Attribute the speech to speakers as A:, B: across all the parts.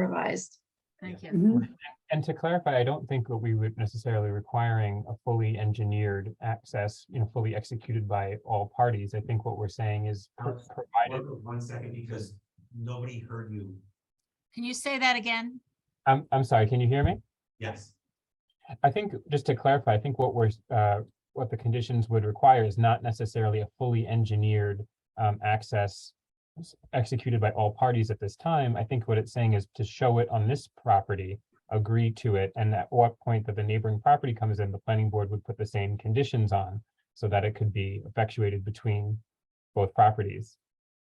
A: revised.
B: Thank you.
A: Mm-hmm.
C: Mhm.
D: And to clarify, I don't think that we would necessarily requiring a fully engineered access, you know, fully executed by all parties. I think what we're saying is pro-
E: Alex,
D: provided,
E: One one second, because nobody heard you.
B: Can you say that again?
D: I'm, I'm sorry, can you hear me?
E: Yes,
D: I think, just to clarify, I think what we're, uh, what the conditions would require is not necessarily a fully engineered um, access s- executed by all parties at this time. I think what it's saying is to show it on this property, agree to it, and at what point that the neighboring property comes in, the planning board would put the same conditions on so that it could be effectuated between both properties.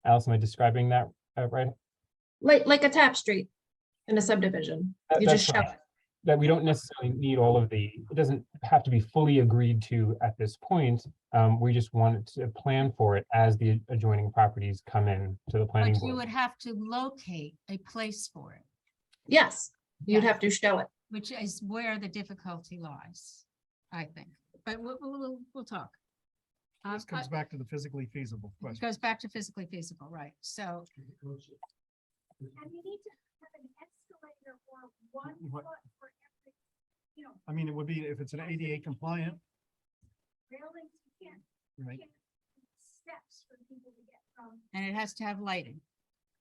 D: Alice, am I describing that uh, right?
A: Like, like a tap street in a subdivision.
D: That-
A: You
D: that's
A: just show
D: fine.
A: it.
D: that we don't necessarily need all of the, it doesn't have to be fully agreed to at this point. Um, we just wanted to plan for it as the adjoining properties come in to the planning
B: But you would
D: board.
B: have to locate a place for it,
A: Yes, you'd
B: Yeah.
A: have to show it.
B: which is where the difficulty lies, I think. But we'll, we'll- we'll, we'll talk. Um,
F: This comes
B: I-
F: back to the physically feasible
B: it
F: question.
B: Goes back to physically feasible, right? So
G: And you need to have an escalator or one
F: What-
G: foot for every, you know,
F: I mean, it would be if it's an ADA compliant,
G: railings, you can't,
F: right,
G: steps for people to get from.
B: And it has to have lighting.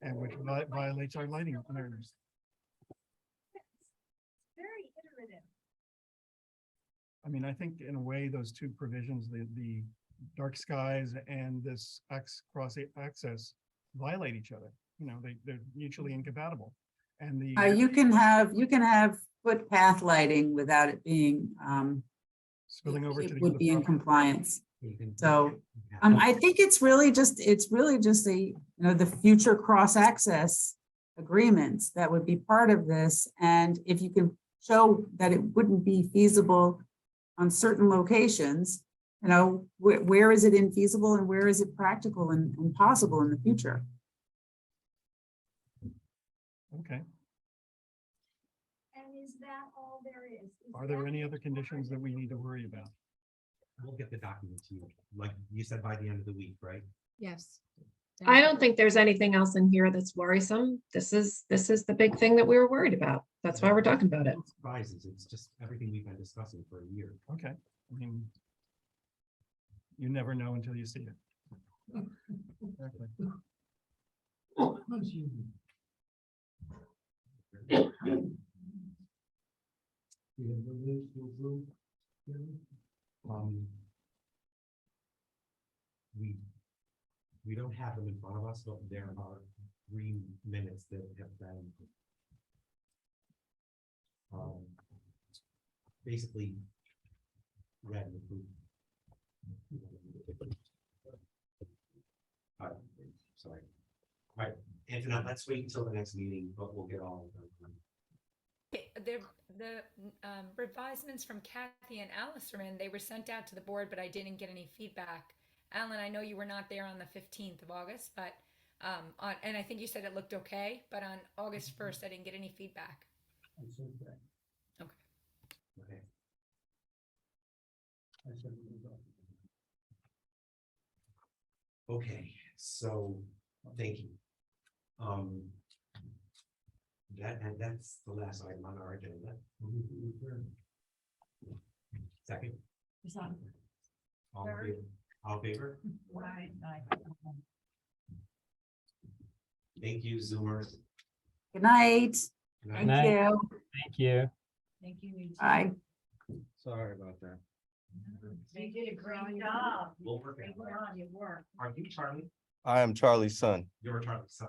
F: and which vi- violates our lighting ordinance.
G: It's Very iterative.
F: I mean, I think in a way, those two provisions, the, the dark skies and this X cross a- access violate each other. You know, they, they're mutually incompatible. And the.
C: Uh, you can have, you can have footpath lighting without it being, um,
F: Spilling over to the.
C: it would
F: other
C: be in
F: property.
C: compliance.
E: you can-
C: So, Um, I think it's really just, it's really just the, you know, the future cross-access agreements that would be part of this. And if you can show that it wouldn't be feasible on certain locations, you know, where, where is it infeasible and where is it practical and, and possible in the future?
F: Okay.
G: And is that all there is? Is
F: Are there
G: that
F: any other
G: all
F: conditions that
G: there
F: we
G: is?
F: need to worry about?
E: We'll get the document to you, like you said, by the end of the week, right?
B: Yes.
A: I don't think there's anything else in here that's worrisome. This is, this is the big thing that we were worried about. That's why we're talking about it.
E: No Surprises, it's just everything we've been discussing for a year.
F: Okay, I mean. You never know until you see it. Exactly.
E: Um, Um, We, we don't have them in front of us, but there are three minutes that have been um, basically read and approved. Uh, Sorry. All right, Anthony, let's wait until the next meeting, but we'll get all of them.
H: Okay, The, the um, revisements from Kathy and Alice are in. They were sent out to the board, but I didn't get any feedback. Alan, I know you were not there on the fifteenth of August, but, um, on, and I think you said it looked okay, but on August first, I didn't get any feedback. Okay.
E: Okay. Okay, so, thank you. Um. That, and that's the last item on our agenda. Second. All in
B: Third.
E: favor? All in favor? Thank you, Zoomers.
C: Good night.
E: Good night.
D: Good
C: Thank you.
D: Thank you.
B: Thank you.
C: Bye.
E: Sorry about that.
B: They did a great job.
E: We'll work it out.
B: your work.
E: Are you Charlie?
I: I am Charlie's son.
E: You're Charlie, so.